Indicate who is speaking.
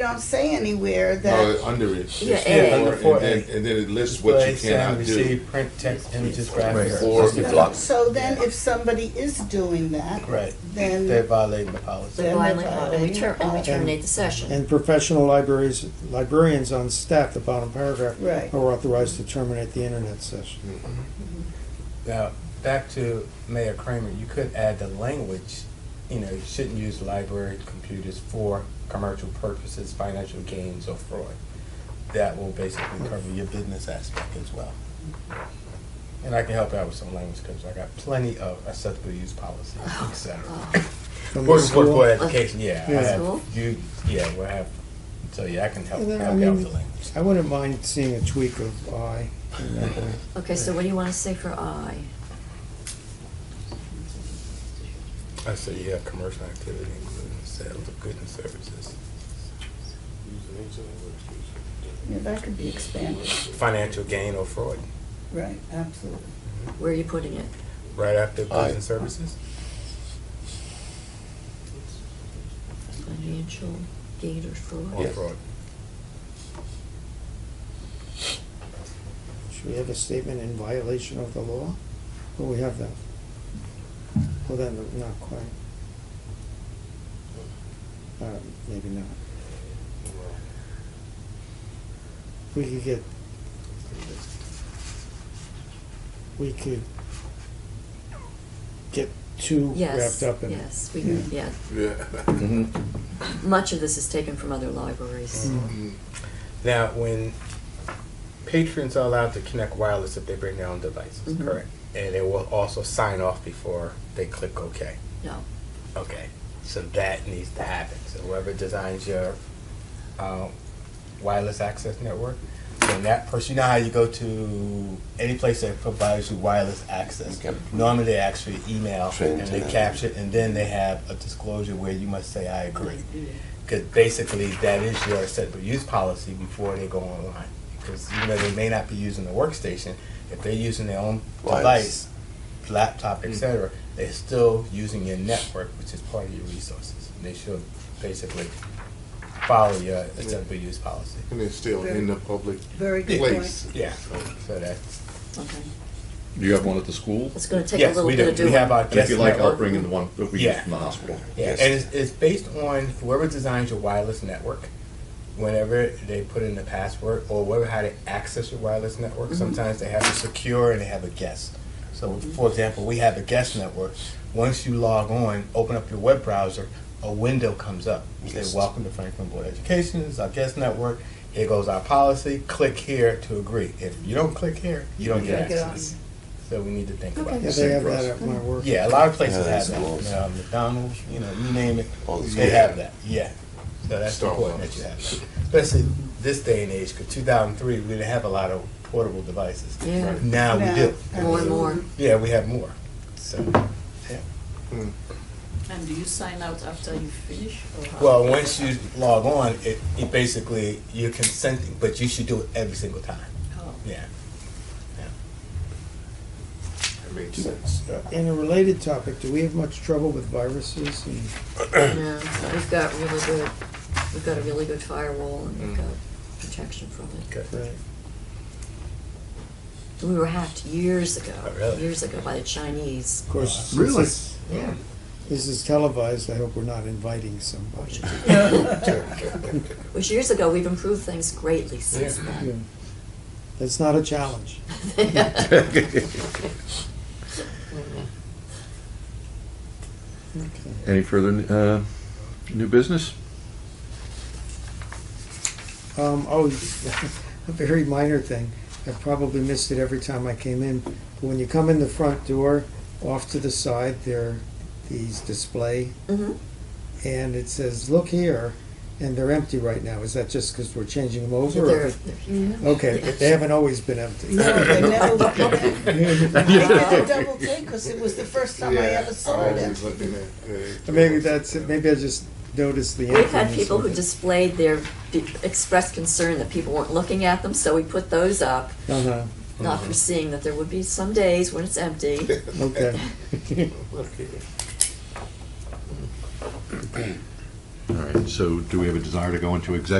Speaker 1: don't say anywhere
Speaker 2: No,
Speaker 1: that,
Speaker 2: Oh, it's under it. It's
Speaker 3: Yeah,
Speaker 2: four,
Speaker 3: A.
Speaker 2: and
Speaker 4: Under four A.
Speaker 2: then, and then it lists what
Speaker 4: Display,
Speaker 2: you cannot
Speaker 4: send,
Speaker 2: do.
Speaker 4: receive, print, text, images,
Speaker 5: Right.
Speaker 4: graphics.
Speaker 2: Or-
Speaker 5: Must be blocked.
Speaker 1: so then if somebody is doing that,
Speaker 4: Right.
Speaker 1: then
Speaker 4: They're violating the policy.
Speaker 1: Then-
Speaker 3: Violate law, and we ter- and we terminate the session.
Speaker 6: And professional libraries, librarians on staff, the bottom paragraph,
Speaker 1: Right.
Speaker 6: are authorized to terminate the internet session.
Speaker 4: Now, back to Mayor Kramer, you could add the language, you know, you shouldn't use library computers for commercial purposes, financial gains, or fraud. That will basically cover your business aspect as well. And I can help out with some language, because I got plenty of acceptable use policies, et cetera.
Speaker 3: Oh,
Speaker 6: From the
Speaker 4: Working for
Speaker 6: school.
Speaker 4: for education, yeah. I
Speaker 6: Yeah.
Speaker 4: have-
Speaker 3: School?
Speaker 4: You, yeah, we'll have, so yeah, I can help,
Speaker 6: And then, I
Speaker 4: help you out with
Speaker 6: mean-
Speaker 4: the language.
Speaker 6: I wouldn't mind seeing a tweak of I. in that way.
Speaker 3: Okay, so what do you want to say for I?
Speaker 4: I said you have commercial activity, including sales of goods and services,
Speaker 1: yeah, that could be expanded,
Speaker 4: financial gain or fraud.
Speaker 1: right, absolutely.
Speaker 3: Where are you putting it?
Speaker 4: Right after
Speaker 5: Aye.
Speaker 4: goods and services?
Speaker 3: Financial gain or
Speaker 4: Or
Speaker 3: fraud?
Speaker 5: Yes.
Speaker 4: fraud?
Speaker 6: Should we have a statement in violation of the law? Well, we have that. Well, then, not quite. Uh, maybe not. We could get, we could get too
Speaker 3: Yes,
Speaker 6: wrapped up in it.
Speaker 3: yes, we,
Speaker 1: Yeah.
Speaker 3: yeah.
Speaker 2: Yeah.
Speaker 5: Mhm.
Speaker 3: Much of this is taken from other libraries.
Speaker 6: Mm.
Speaker 4: Now, when patrons are allowed to connect wireless if they bring their own devices,
Speaker 3: Mhm.
Speaker 4: correct? And they will also sign off before they click OK.
Speaker 3: No,
Speaker 4: Okay, so that needs to happen. So whoever designs your uh, wireless access network, then that person, you know how you go to any place that provides you wireless access.
Speaker 5: Okay.
Speaker 4: Normally, they actually email
Speaker 5: Train
Speaker 4: and
Speaker 5: to
Speaker 4: they
Speaker 5: that.
Speaker 4: capture, it, and then they have a disclosure where you must say, "I agree," because basically that is your acceptable use policy before they go online. Because you know they may not be using the workstation if they're using their own
Speaker 5: Lights.
Speaker 4: device laptop, etc., they're still using your network, which is part of your resources. They should basically follow your acceptable use policy.
Speaker 2: And it's still in the public
Speaker 1: Very good point.
Speaker 2: place.
Speaker 4: Yeah. So that's
Speaker 3: okay.
Speaker 5: Do you have one at the school?
Speaker 3: It's going to take a
Speaker 4: yes,
Speaker 3: little
Speaker 4: we
Speaker 3: bit
Speaker 4: do.
Speaker 3: of doing.
Speaker 4: we have our
Speaker 5: And if
Speaker 4: guest
Speaker 5: you like, I'll
Speaker 4: network.
Speaker 5: bring in the one that we use
Speaker 4: Yeah.
Speaker 5: from the hospital.
Speaker 4: Yeah, and it's, it's based on whoever designs your wireless network. Whenever they put in the password or whoever how they access your wireless network, sometimes they have a secure and they have a guest. So, for example, we have a guest network. Once you log on, open up your web browser, a window comes up. You say, "Welcome to Franklin Board of Education. This is our guest network. Here goes our policy. Click here to agree. If you don't click here, you don't
Speaker 1: Yeah,
Speaker 4: get
Speaker 1: get
Speaker 4: access." So we need to think about
Speaker 3: Okay.
Speaker 4: that.
Speaker 6: Yeah, they
Speaker 5: Same
Speaker 6: have
Speaker 5: for us.
Speaker 6: that at my work.
Speaker 4: Yeah, a lot of places
Speaker 5: Yeah,
Speaker 4: have that.
Speaker 5: schools.
Speaker 4: You know, McDonald's, you know, you name it,
Speaker 5: All the
Speaker 4: they
Speaker 5: schools.
Speaker 4: have that. Yeah, so that's
Speaker 2: Star
Speaker 4: important
Speaker 2: Wars.
Speaker 4: that you have that, especially this day and age. Because 2003, we didn't have a lot of portable devices.
Speaker 3: Yeah.
Speaker 4: Now we do.
Speaker 1: Now,
Speaker 3: More and more.
Speaker 4: Yeah, we have more. So,
Speaker 7: And do you sign out after you finish? or how?
Speaker 4: well, once you log on, it, it basically you're consenting, but you should do it every single time.
Speaker 7: Oh.
Speaker 4: Yeah. Yeah. That makes
Speaker 6: So,
Speaker 4: sense.
Speaker 6: Uh, In a related topic, do we have much trouble with viruses and
Speaker 3: No, we've got really good, we've got a really good firewall and
Speaker 4: Mm.
Speaker 3: we've got protection from it.
Speaker 4: Okay.
Speaker 6: Right.
Speaker 3: We were hacked years ago,
Speaker 4: Oh, really?
Speaker 3: years ago by the Chinese.
Speaker 6: Of course, since
Speaker 5: Really?
Speaker 6: this-
Speaker 3: Yeah.
Speaker 6: This is televised. I hope we're not inviting somebody.
Speaker 3: Which years ago, we've improved things greatly since then.
Speaker 6: Yeah. That's not a challenge. Okay.
Speaker 5: Any further uh, new business?
Speaker 6: Um, oh, a very minor thing. I probably missed it every time I came in. But when you come in the front door, off to the side, there are these display,
Speaker 3: Mhm.
Speaker 6: and it says, "Look here," and they're empty right now. Is that just because we're changing them over? or-
Speaker 3: They're- they're-
Speaker 6: okay, but they haven't always been empty.
Speaker 1: No, they never look at it. I double take, because it was the first time I ever saw
Speaker 2: I
Speaker 1: it.
Speaker 2: was looking at, uh,
Speaker 6: Maybe that's it. Maybe I just noticed the.
Speaker 3: We've had
Speaker 6: emptiness
Speaker 3: people
Speaker 6: of
Speaker 3: who
Speaker 6: it.
Speaker 3: displayed their, be- expressed concern that people weren't looking at them, so we put those up,
Speaker 6: Uh-huh.
Speaker 3: not foreseeing that there would be some days when it's empty.
Speaker 6: Okay.
Speaker 2: Okay.
Speaker 5: All right. right, so do we have a desire to go into executive